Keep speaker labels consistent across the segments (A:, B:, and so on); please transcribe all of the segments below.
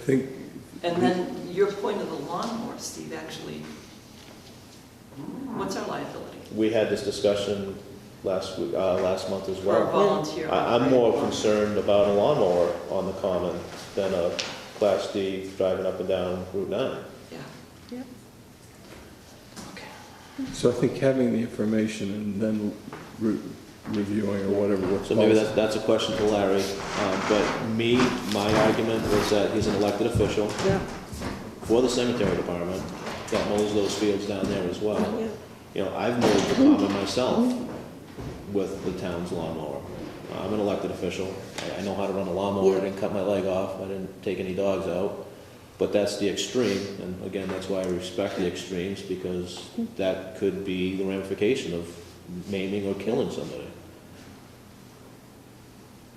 A: I think,
B: And then your point of the lawnmower, Steve, actually, what's our liability
C: We had this discussion last week, uh, last month as
B: for a
C: well.
B: volunteer?
C: I, I'm more concerned about a lawnmower on the common than a Class D driving up and down Route nine.
B: Yeah.
A: so I think having the information and then re- reviewing or whatever, what's
C: So maybe
A: policy.
C: that's, that's a question for Larry, um, but me, my argument was that he's an elected official
D: Yeah,
C: for the cemetery department that mows those fields down there as well.
D: yeah,
C: You know, I've mowed the common myself with the town's lawnmower. Uh, I'm an elected official. I- I know how to run a lawnmower. I didn't cut my leg off. I didn't take any dogs out. But that's the extreme, and again, that's why I respect the extremes, because that could be the ramification of maiming or killing somebody.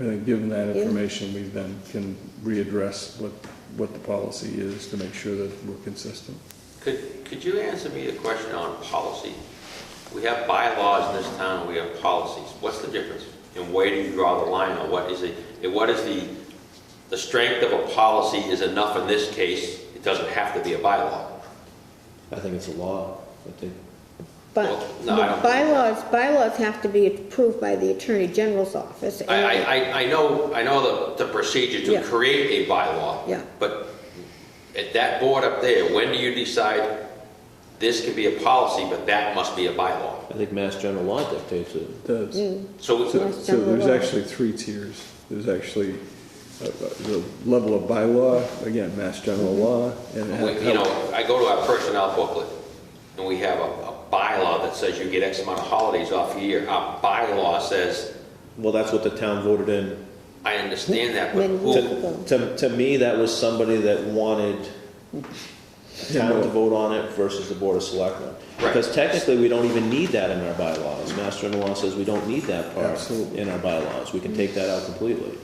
A: I think given that
D: Yeah.
A: information, we then can readdress what, what the policy is to make sure that we're consistent.
E: Could, could you answer me a question on policy? We have bylaws in this town, and we have policies. What's the difference? And where do you draw the line, or what is it, and what is the, the strength of a policy is enough in this case, it doesn't have to be a bylaw?
C: I think it's a law. I think,
D: but
E: Well, no, I don't-
D: bylaws, bylaws have to be approved by the Attorney General's office.
E: I, I,
D: and-
E: I- I know, I know the, the procedure
D: Yeah.
E: to create a bylaw.
D: Yeah.
E: But at that board up there, when do you decide this can be a policy, but that must be a bylaw?
C: I think mass general law dictates it.
A: The-
D: Mm,
E: So,
A: So, so
D: Yes,
A: there's
D: general law.
A: actually three tiers. There's actually uh, uh, the level of bylaw, again, mass general law, and
E: We- You
A: how,
E: know, I go to our personnel booklet, and we have a a bylaw that says you get X amount of holidays off a year. Our bylaw says,
C: Well, that's what the town voted in
E: I understand that, but
D: When
E: who,
D: you-
C: To, to, to me, that was somebody that wanted town to vote on it versus the board of selectmen. Because technically, we don't even need that in our bylaws. Master and law says we don't need that part
A: Absolutely.
C: in our bylaws. We can take that out completely.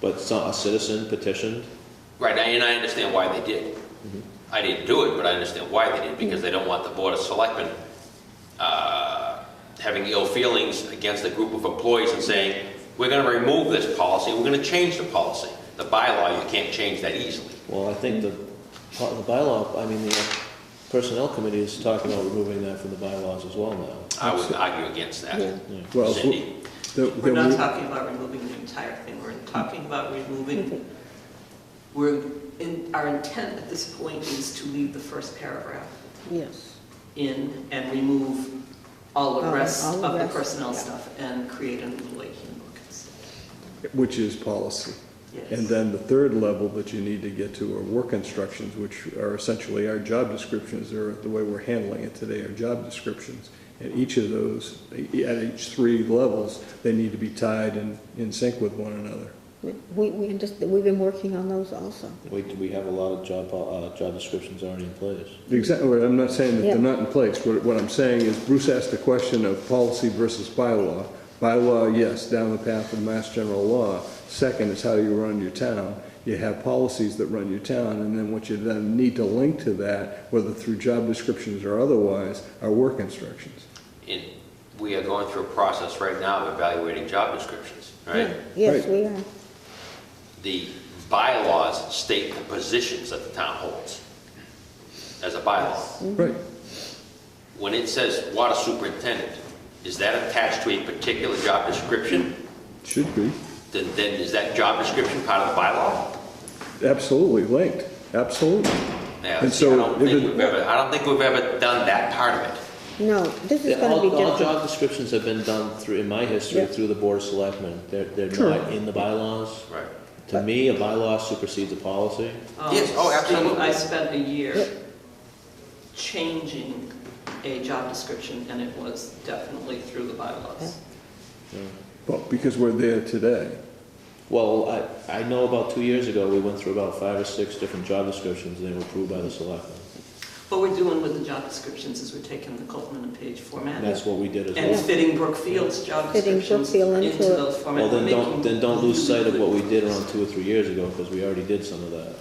C: But some, a citizen petitioned,
E: right, and I understand why they did. I didn't do it, but I understand why they did, because they don't want the Board of Selectmen uh, having ill feelings against a group of employees and saying, we're gonna remove this policy, we're gonna change the policy. The bylaw, you can't change that easily.
C: well, I think the, part of the bylaw, I mean, the personnel committee is talking about removing that from the bylaws as well now.
E: I would argue against that,
D: Yeah.
A: well,
E: Cindy.
A: the-
B: We're not
A: the-
B: talking about removing the entire thing, we're talking about removing, we're, in- our intent at this point is to leave the first paragraph
D: Yes,
B: in and remove all the
D: All-
B: rest
D: Oh, all
B: of
D: the
B: the
D: rest,
B: personnel
D: yeah.
B: stuff and create a new lake handbook. instead.
A: which is policy.
B: Yes.
A: And then the third level that you need to get to are work instructions, which are essentially our job descriptions, or the way we're handling it today, our job descriptions. And each of those, at each three levels, they need to be tied and in sync with one another.
D: we, we, just- we've been working on those also.
C: We, we have a lot of job, uh, job descriptions already in place.
A: Exactly, I'm not saying that they're
D: Yeah.
A: not in place, what, what I'm saying is Bruce asked the question of policy versus bylaw. Bylaw, yes, down the path of mass general law, second is how you run your town. You have policies that run your town, and then what you then need to link to that, whether through job descriptions or otherwise, are work instructions.
E: in, we are going through a process right now of evaluating job descriptions, right?
D: Yeah, Yes,
A: Right.
D: we are,
E: The bylaws state the positions that the town holds as a bylaw.
A: Right,
E: When it says water superintendent, is that attached to a particular job description?
A: should be,
E: Then, then is that job description part of the bylaw?
A: absolutely linked, absolutely.
E: Now,
A: And
E: see, I
A: so
E: don't
A: if
E: think
A: it-
E: we've ever, I don't think we've ever done that part of it.
D: no, this is
C: Yeah,
D: gonna
C: all,
D: be
C: all
D: different.
C: job descriptions have been done through, in my history,
D: Yeah.
C: through the board of selectmen. They're, they're
A: True.
C: not in the bylaws.
E: Right.
C: To me, a bylaw supersedes a policy.
B: Um,
E: Yes, oh,
B: Steve,
E: absolutely.
B: I spent a year
D: Yep.
B: changing a job description, and it was definitely through the bylaws.
A: Well, because we're there today.
C: Well, I, I know about two years ago, we went through about five or six different job descriptions, and they were approved by the selectmen.
B: What we're doing with the job descriptions is we're taking the Coleman and Page format
C: And that's what we did as
B: and
C: well.
B: fitting Brookfield's job
D: Fitting
B: descriptions
D: Brookfield
B: into
D: into it.
B: those formats.
C: Well, then don't, then don't lose sight of what we did around two or three years ago, because we already did some of that.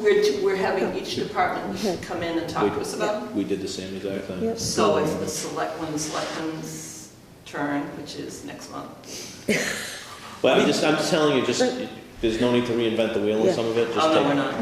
B: We're, t- we're having each department come in and talk to us about.
C: We did the same exact thing.
D: Yep.
B: So it's the select, when the selectmen's turn, which is next month.
C: But I'm just, I'm just telling you, just, there's no need to reinvent the wheel on
D: Yeah.
C: some of it. Just
B: Oh, no,
C: take-
B: we're not.